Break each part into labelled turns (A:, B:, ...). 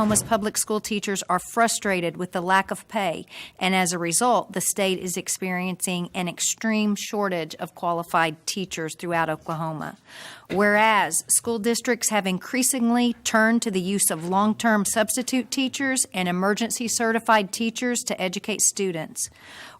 A: Oklahoma's public school teachers are frustrated with the lack of pay, and as a result, the state is experiencing an extreme shortage of qualified teachers throughout Oklahoma. Whereas, school districts have increasingly turned to the use of long-term substitute teachers and emergency certified teachers to educate students.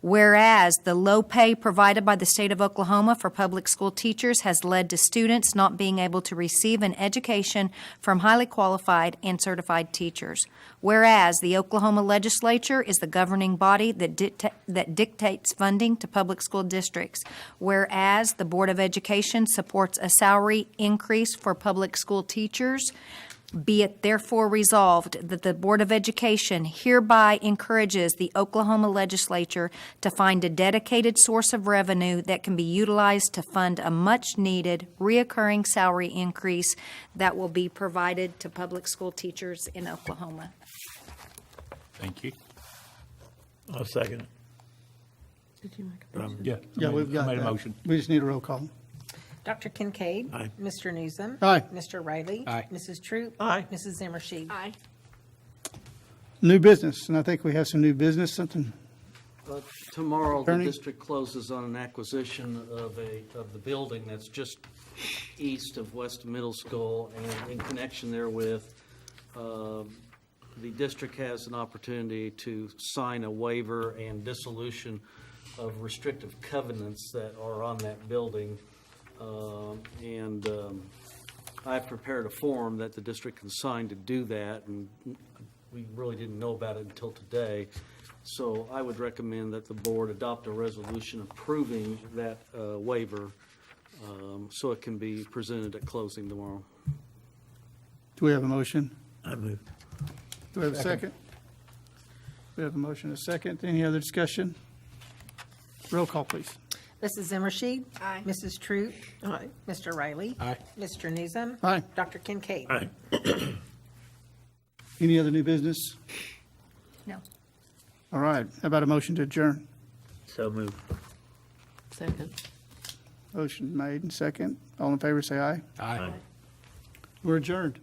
A: Whereas, the low pay provided by the state of Oklahoma for public school teachers has led to students not being able to receive an education from highly qualified and certified teachers. Whereas, the Oklahoma legislature is the governing body that dicta- that dictates funding to public school districts. Whereas, the Board of Education supports a salary increase for public school teachers. Be it therefore resolved that the Board of Education hereby encourages the Oklahoma Legislature to find a dedicated source of revenue that can be utilized to fund a much-needed reoccurring salary increase that will be provided to public school teachers in Oklahoma.
B: Thank you.
C: I'll second it.
B: Um, Yeah.
D: Yeah, we've got
B: I made a
D: that.
B: motion.
D: We just need a roll call.
E: Dr. Kincaid.
C: Aye.
E: Mr. Newsom.
D: Aye.
E: Mr. Riley.
B: Aye.
E: Mrs. Troop.
C: Aye.
E: Mrs. Zimmershed.
F: Aye.
D: New business, and I think we have some new business, something.
G: Uh, Tomorrow, the
D: Attorney?
G: district closes on an acquisition of a, of the building that's just east of West Middle School, and in connection therewith, um, the district has an opportunity to sign a waiver and dissolution of restrictive covenants that are on that building. Um, And um, I've prepared a form that the district can sign to do that, and we really didn't know about it until today. So I would recommend that the board adopt a resolution approving that uh, waiver, um, so it can be presented at closing tomorrow.
D: Do we have a motion?
C: I move.
D: Do we have a second? We have a motion, a second. Any other discussion? Roll call, please.
E: Mrs. Zimmershed.
F: Aye.
E: Mrs. Troop.
C: Aye.
E: Mr. Riley.
B: Aye.
E: Mr. Newsom.
D: Aye.
E: Dr. Kincaid.
C: Aye.
D: Any other new business?
A: No.
D: All right, how about a motion to adjourn?
C: So move.
F: Second.
D: Motion made and second. All in favor, say aye.
B: Aye.
D: We're adjourned.